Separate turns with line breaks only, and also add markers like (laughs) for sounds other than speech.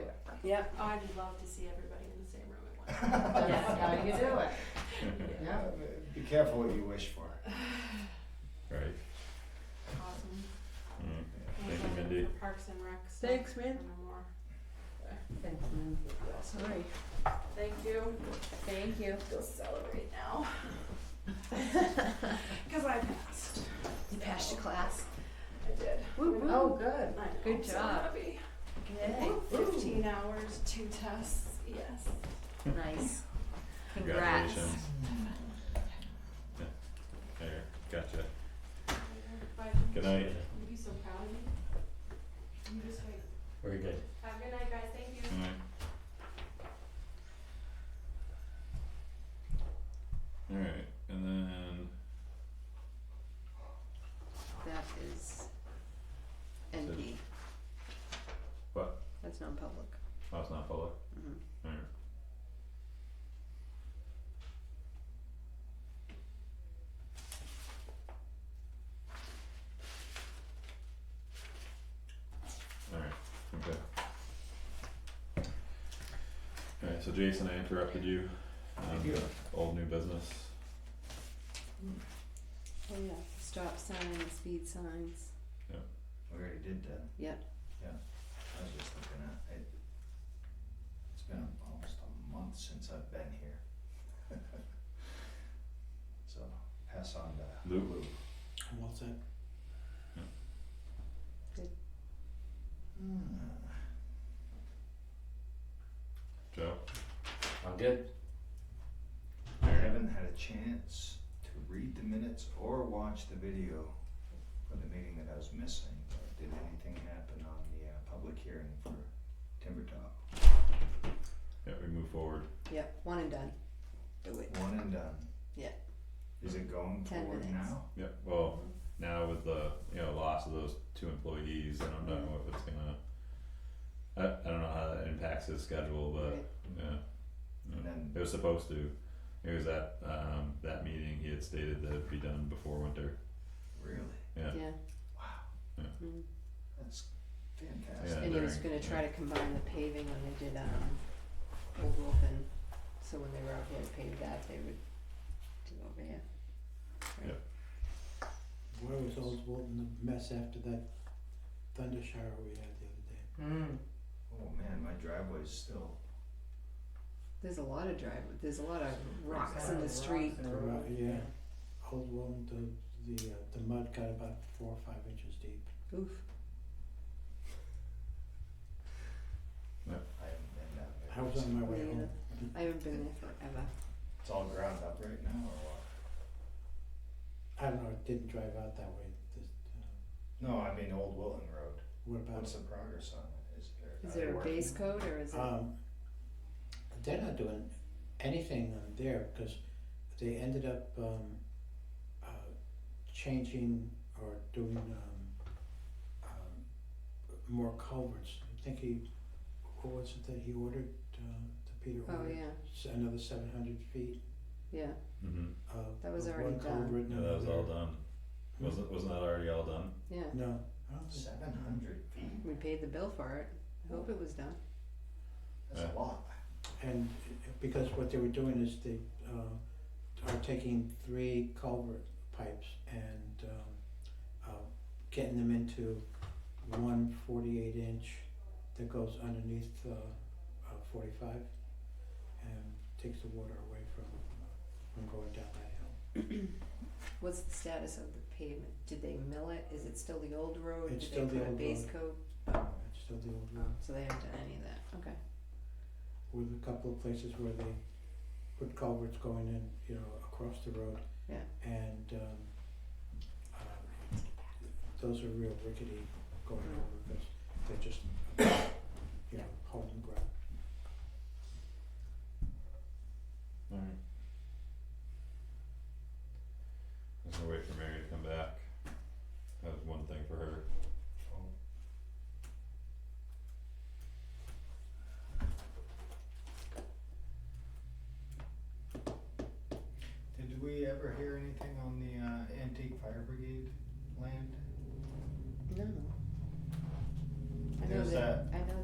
Yep.
Oh, I'd love to see everybody in the same room at once.
(laughs)
That's how you do it.
Uh,
Yeah.
Be careful what you wish for.
Right.
Awesome.
Mm.
And
Thank you,
then
Mindy.
for Parks and Rec stuff.
Thanks, man.
and more.
Thanks, man. Sorry.
Thank you.
Thank you.
Go celebrate
(laughs)
now. (laughs) Cause I passed.
You passed your class.
I did.
Woo, woo.
Oh, good.
I know,
Good
I'm so
job.
happy.
Yay.
Fifteen hours, two tests, yes.
Nice. Congrats.
Congratulations. Yeah. There, gotcha.
Bye.
Good night.
You'd be so proud of me. You just wait.
Very good.
Have a good night, guys. Thank you.
Good night. Alright, and then,
That is NP.
What?
That's non-public.
oh, it's not public,
Mhm.
alright. Alright, okay. Alright, so Jason, I interrupted you on
you.
the old new business.
Oh, yeah. Stop signs, speed signs.
We already did that.
Yep.
Yeah, I was just looking at, it, it's been almost a month since I've been here. (laughs) So pass on to
Lulu.
What's that?
Hmm.
Joe?
I'm good.
I haven't had a chance to read the minutes or watch the video for the meeting that I was missing. But Did anything happen on the uh, public hearing for Timber Top?
Yeah, we move forward.
Yep, one and done. Do it.
One and done.
Yeah.
Is it going
Ten
forward
minutes.
now?
Yeah, well, now with the, you know, loss of those two employees, I don't know if it's gonna, I, I don't know how that impacts his schedule, but,
Right.
yeah.
And then
It was supposed to, it was at, um, that meeting, he had stated that it'd be done before winter,
really,
yeah,
Yeah.
wow,
Mm.
that's
Yeah,
fantastic.
And he was
during-
gonna try to combine the paving when they did, um, Old Wilton, so when they were out here to pave that, they would do over here.
Where was Old Walton, the mess after that thunder shower we had the other day?
Mm.
Oh man, my driveway's still.
There's a lot of drive, there's a lot of rocks in the
Rocks
street.
in the road.
Right, yeah. Old Walton, the, the, uh, the mud got about four or five inches deep.
Oof,
I haven't been down there.
I was on my way
Yeah.
home.
I haven't been there forever.
It's all ground up right now or what?
I don't know, I didn't drive out that way. This, uh,
No, I mean Old Wilton Road.
what about,
What's the progress on it? Is there?
Is
are they
there a
working?
base coat or is it,
um, they're not doing anything on there because they ended up, um, uh, changing or doing, um, um, more culverts. I think he, what was it that he ordered, uh, that Peter
oh
ordered?
yeah,
s- another seven hundred feet
yeah,
mm-hmm,
of
That was
of
already
one
done.
culvert and
yeah, that was all
another-
done, wasn't, wasn't that already all done?
yeah.
No, I don't think,
Seven hundred feet?
We paid the bill for it. I hope it was done.
That's a
Yeah.
lot.
and uh, because what they were doing is they uh are taking three culvert pipes and um uh getting them into one forty-eight inch that goes underneath uh uh forty-five and takes the water away from from going down that hill.
What's the status of the pavement? Did they mill it? Is it still the old road?
It's
Did
still
they
the
put a
old
base
road.
coat?
It's still the old
Oh,
road.
so they haven't done any of that. Okay.
with a couple of places where they put culverts going in, you know, across the road.
Yeah.
And um uh those are real rickety going over because they're just
Mm-hmm.
uh,